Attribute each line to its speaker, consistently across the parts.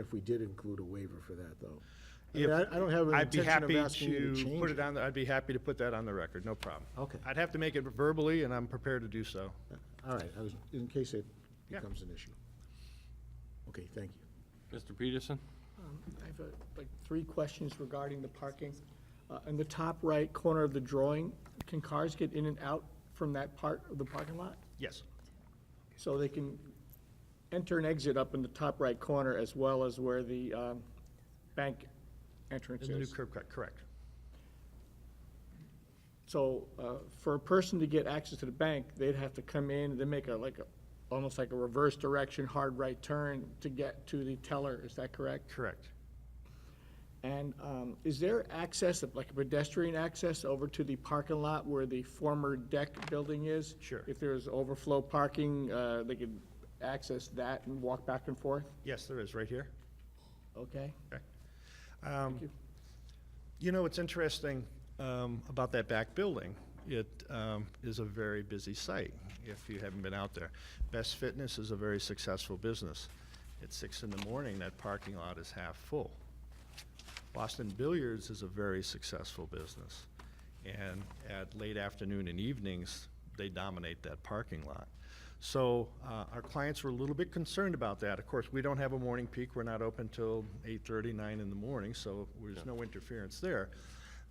Speaker 1: If we did include a waiver for that, though. I mean,
Speaker 2: If-
Speaker 1: I I don't have an
Speaker 2: I'd be
Speaker 1: intention of
Speaker 2: happy
Speaker 1: asking you to
Speaker 2: to
Speaker 1: change
Speaker 2: put it
Speaker 1: it.
Speaker 2: on, the- I'd be happy to put that on the record, no problem.
Speaker 1: Okay.
Speaker 2: I'd have to make it verbally, and I'm prepared to do so.
Speaker 1: All right, I was, in case it
Speaker 2: Yeah.
Speaker 1: becomes an issue. Okay, thank you.
Speaker 3: Mr. Peterson?
Speaker 4: I have uh, like three questions regarding the parking. Uh, In the top right corner of the drawing, can cars get in and out from that part of the parking lot?
Speaker 2: Yes.
Speaker 4: So they can enter and exit up in the top right corner as well as where the um, bank entrance
Speaker 2: In the new
Speaker 4: is.
Speaker 2: curb cut, correct.
Speaker 4: So uh, for a person to get access to the bank, they'd have to come in, they make a, like, a almost like a reverse direction, hard right turn to get to the teller, is that correct?
Speaker 2: Correct.
Speaker 4: And um, is there access, like a pedestrian access over to the parking lot where the former deck building is?
Speaker 2: Sure.
Speaker 4: If there's overflow parking, uh, they could access that and walk back and forth?
Speaker 2: Yes, there is, right here.
Speaker 4: Okay?
Speaker 2: Okay. Um,
Speaker 4: you.
Speaker 2: You know, what's interesting um, about that back building, it um, is a very busy site, if you haven't been out there. Best Fitness is a very successful business. At six in the morning, that parking lot is half full. Boston Billiards is a very successful business, and at late afternoon and evenings, they dominate that parking lot. So uh, our clients were a little bit concerned about that. Of course, we don't have a morning peak, we're not open till 8:30, 9 in the morning, so there's no interference there.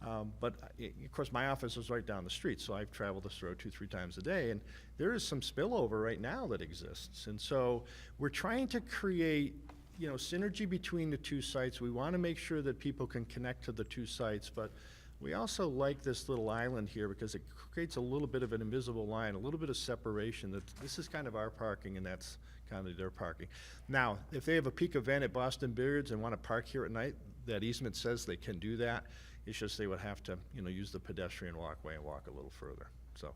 Speaker 2: Um, But, uh, i- of course, my office is right down the street, so I've traveled this road two, three times a day, and there is some spillover right now that exists. And so we're trying to create you know, synergy between the two sites, we want to make sure that people can connect to the two sites, but we also like this little island here because it creates a little bit of an invisible line, a little bit of separation, that this is kind of our parking and that's kind of their parking. Now, if they have a peak event at Boston Billiards and want to park here at night, that easement says they can do that. It's just they would have to, you know, use the pedestrian walkway and walk a little further, so.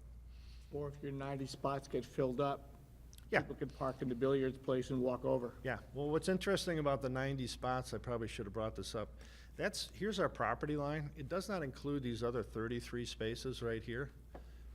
Speaker 4: Or if your 90 spots get filled up?
Speaker 2: Yeah.
Speaker 4: People could park in the billiards place and walk over.
Speaker 2: Yeah, well, what's interesting about the 90 spots, I probably should have brought this up. That's, here's our property line. It does not include these other 33 spaces right here,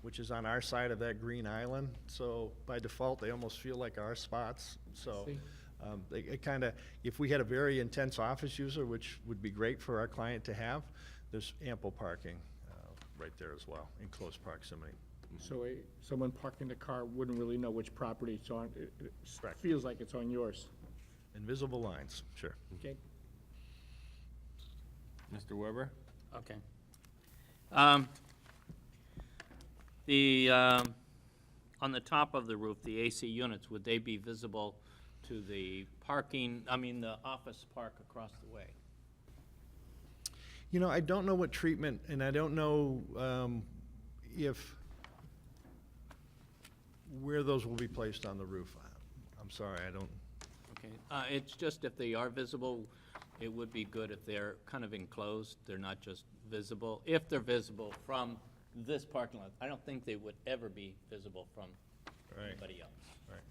Speaker 2: which is on our side of that green island. So by default, they almost feel like our spots, so.
Speaker 4: see.
Speaker 2: um, they- It kind of, if we had a very intense office user, which would be great for our client to have, there's ample parking uh, right there as well, in close proximity.
Speaker 4: So a- someone parking the car wouldn't really know which property it's on. It- It s-
Speaker 2: Correct.
Speaker 4: feels like it's on yours.
Speaker 2: Invisible lines, sure.
Speaker 4: Okay?
Speaker 3: Mr. Weber?
Speaker 5: Okay. Um, The, um, on the top of the roof, the AC units, would they be visible to the parking, I mean, the office park across the way?
Speaker 2: You know, I don't know what treatment, and I don't know um, if, where those will be placed on the roof. I- I'm sorry, I don't,
Speaker 5: Okay, uh, it's just if they are visible, it would be good if they're kind of enclosed, they're not just visible. If they're visible from this parking lot, I don't think they would ever be visible from
Speaker 2: Right.
Speaker 5: anybody else,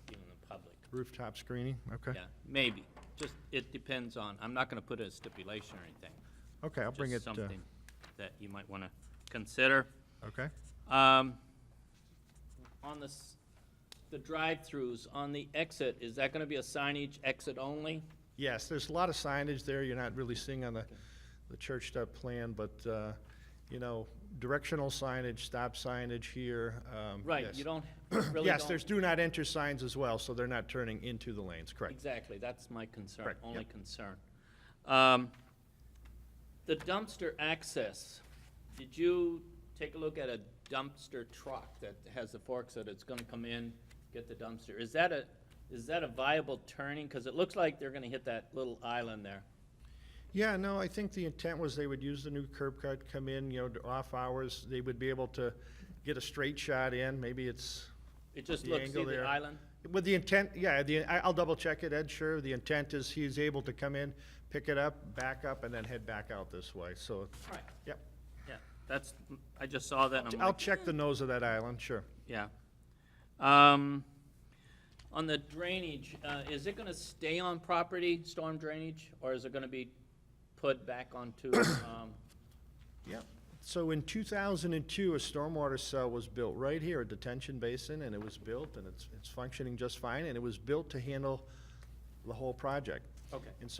Speaker 5: even the public.
Speaker 2: rooftop screening, okay?
Speaker 5: Yeah, maybe, just, it depends on, I'm not gonna put a stipulation or anything.
Speaker 2: Okay, I'll bring it,
Speaker 5: Just
Speaker 2: uh,
Speaker 5: something that you might wanna consider.
Speaker 2: okay?
Speaker 5: Um, on this, the drive-throughs, on the exit, is that gonna be a signage exit only?
Speaker 2: Yes, there's a lot of signage there, you're not really seeing on the, the church step plan, but, uh, you know, directional signage, stop signage here. um,
Speaker 5: Right,
Speaker 2: yes.
Speaker 5: you don't, really don't.
Speaker 2: Yes, there's do not enter signs as well, so they're not turning into the lanes, correct?
Speaker 5: Exactly, that's my concern,
Speaker 2: Correct,
Speaker 5: only
Speaker 2: yep.
Speaker 5: concern. Um, The dumpster access, did you take a look at a dumpster truck that has the forks that it's gonna come in, get the dumpster? Is that a, is that a viable turning? Cause it looks like they're gonna hit that little island there.
Speaker 2: Yeah, no, I think the intent was they would use the new curb cut, come in, you know, to off hours, they would be able to get a straight shot in, maybe it's,
Speaker 5: It just
Speaker 2: The
Speaker 5: looks, see
Speaker 2: angle
Speaker 5: the
Speaker 2: there.
Speaker 5: island?
Speaker 2: with the intent, yeah, the, I- I'll double check it, Ed, sure, the intent is he's able to come in, pick it up, back up, and then head back out this way, so,
Speaker 5: Right,
Speaker 2: yep.
Speaker 5: yeah, that's, Um, I just saw that and I'm
Speaker 2: I'll
Speaker 5: like,
Speaker 2: check the nose of that island, sure.
Speaker 5: yeah. Um, on the drainage, uh, is it gonna stay on property, storm drainage, or is it gonna be put back onto, um,
Speaker 2: Yep. So in two thousand and two, a stormwater cell was built right here, a detention basin, and it was built, and it's, it's functioning just fine, and it was built to handle the whole project.
Speaker 5: okay.
Speaker 2: And so